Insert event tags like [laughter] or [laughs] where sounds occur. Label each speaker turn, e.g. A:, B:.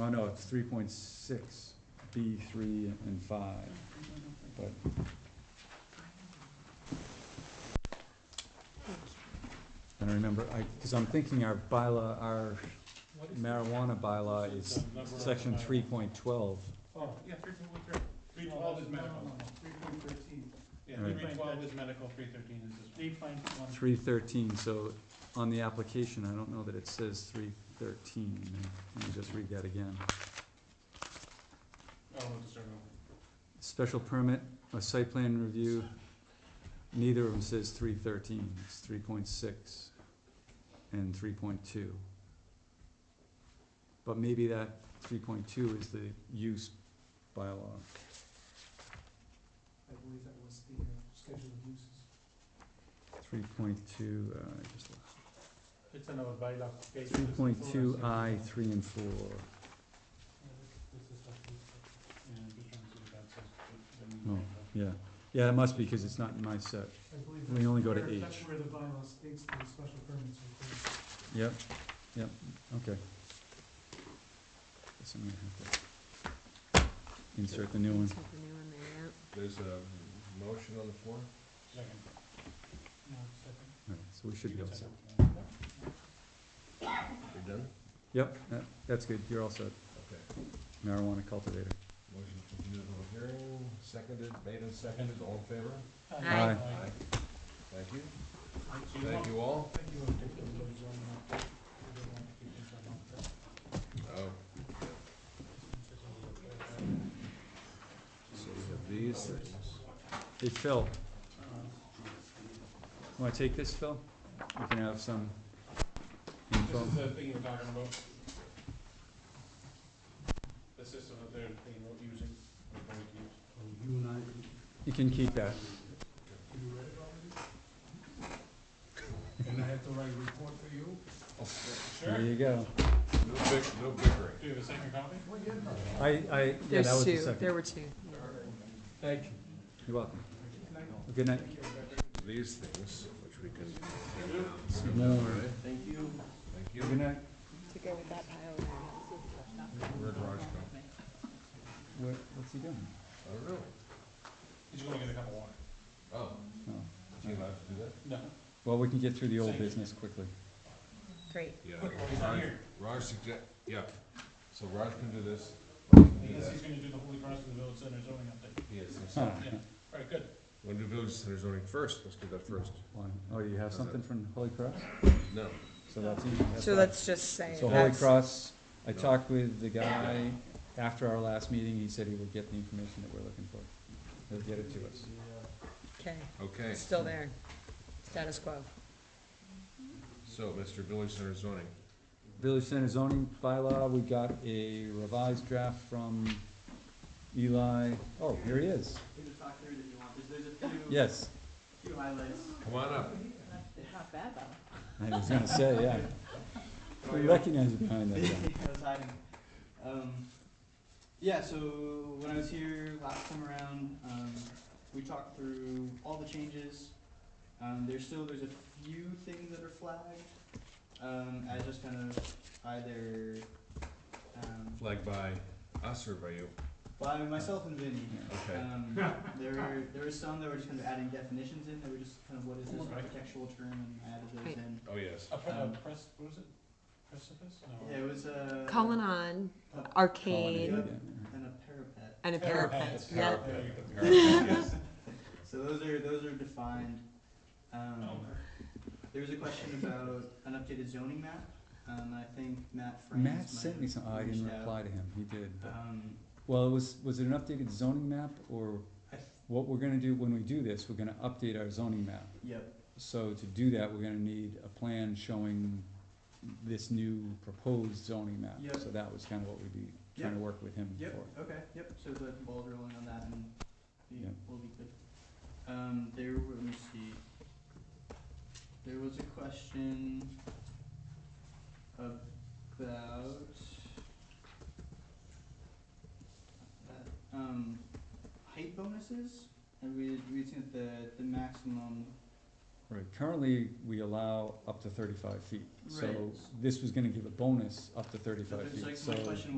A: Oh, no, it's three point six, B three and five, but I don't remember, I, cause I'm thinking our bylaw, our
B: What is it?
A: marijuana bylaw is
B: The number of
A: section
B: the bylaw.
A: three point twelve.
B: Oh, yeah, three point three. Three
C: No,
B: twelve
C: no,
B: is
C: no,
B: medical.
C: no, no, Three point thirteen,
B: Yeah,
A: Right.
B: three twelve is medical, three thirteen is this one.
C: three point one.
A: Three thirteen, so on the application, I don't know that it says three thirteen, let me just read that again.
B: Oh, we'll just start over.
A: Special permit, a site plan review, neither of them says three thirteen, it's three point six and three point two. But maybe that three point two is the use bylaw.
C: I believe that was the uh, schedule of uses.
A: Three point two, uh, I just lost.
B: It's another bylaw. Okay,
A: Three
B: this
A: point
B: is the
A: two
B: full
A: I,
B: section.
A: three and four.
B: Yeah, I'm just trying to see what that says, but then we
A: No.
B: might have-
A: Yeah, yeah, it must be, cause it's not in my set.
C: I believe.
A: We only go to
C: that's where- That's
A: H.
C: where the bylaw states the special permits are. for.
A: Yep, yep, okay. Guess I'm gonna have to insert the new one.
D: There's a motion on the floor?
B: Second. No, second.
A: Alright, so we should
B: You
A: be all
B: can
A: set.
B: second. No, no.
D: You're done?
A: Yep, that- that's good, you're all set.
D: Okay.
A: Marijuana cultivator.
D: Motion to continue the public hearing, seconded, made and seconded, all in favor?
A: Aye.
D: Aye. Thank you.
B: Thank you.
D: Thank you all.
B: Thank you. We don't want to keep this on.
D: Oh, so we have these things.
A: Hey, Phil. Wanna take this, Phil? We can have some
B: This
A: info.
B: is the thing you're talking about. The system that they're, they were using, or going to use.
C: Oh, You and I,
A: You can keep that.
C: you read it already? And I have to write a report for you?
A: There
B: Sure,
A: you go.
D: No bick, no bickering.
B: do you have a second copy?
C: Well, yeah, no.
A: I, I, yeah, that was the second.
E: were two.
A: Thank you. You're welcome. Good night.
D: These things, which we can.
A: More.
D: Thank you. Thank you.
A: Good night.
E: To go with that pile.
D: Where'd Raj go?
A: What, what's he doing?
D: Oh, really?
B: He's gonna get a cup of water.
D: Oh,
A: Oh.
D: is he allowed to do that?
B: No.
A: Well, we can get through the old business quickly.
E: Great.
B: Oh, he's not
D: Raj-
B: here.
D: Raj suggest, yeah, so Raj can do this. I can
B: He
D: do
B: is,
D: that.
B: he's gonna do the Holy Cross and the Village Center
D: [laughs]
B: zoning update.
D: He is, yes.
A: Huh.
B: Yeah, alright, good.
D: Wanna do village center zoning first, let's do that first.
A: Why- Oh, you have something from Holy Cross?
D: No,
A: So that's easy. that's
E: So
A: fine.
E: let's just say
A: So Holy
E: that's,
A: Cross, I talked with the guy after our last meeting, he said he would get the information that we're looking for. He'll get it to us.
E: okay,
D: okay,
E: it's still there, status quo.
D: so Mr. Village Center zoning,
A: Village Center zoning bylaw, we got a revised draft from Eli, oh, here he is,
C: talk through that you want, there's, there's a few,
A: yes,
C: few highlights.
D: come on up.
E: Not bad though.
A: I was gonna say, yeah. We recognize you behind that guy.
C: I was hiding. Um, yeah, so when I was here last time around, um, we talked through all the changes. Um, there's still there's a few things that are flagged. Um, I just kind of either um,
D: Flagged by us or by you?
C: by myself and Vinny.
D: Okay.
C: Um, there were there were some that were just kind of adding definitions in. That were just kind of what is this architectural term, and I added those
E: Right.
C: in.
D: Oh, yes.
B: A pre- a
C: Um,
B: press, what is it? Precipice? No.
C: Yeah, it was uh, a
E: Colin on, arcade,
C: and a parapet.
E: and a parapet,
B: Parapet.
E: yeah.
B: There you
D: Parapet, the
B: go.
D: parapet, yes.
C: So those are those are defined. [laughs]
D: Oh.
C: Um, there was a question about an updated zoning map. Um, I think Matt Franz might
A: Matt sent me
C: have
A: some, oh, I didn't
C: reached out.
A: reply to him, he did, but-
C: Um,
A: well, it was, was it an updated zoning map, or
C: I, th-
A: what we're gonna do when we do this, we're gonna update our zoning map.
C: yep.
A: So to do that, we're gonna need a plan showing this new proposed zoning map.
C: Yep.
A: So that was kind of what we'd be trying to work with him
C: Yep.
A: for.
C: Okay. Yep. So the ball's rolling on that, and we
A: Yep.
C: will be good. Um, there. were- Let me see. There was a question about. uh, that, Um, height bonuses, and we we had seen that the the maximum
A: Right, currently, we allow up to thirty-five feet. So
C: Right.
A: this was gonna give a bonus up to
C: So
A: thirty-five
C: there's
A: feet,
C: like my
A: so
C: question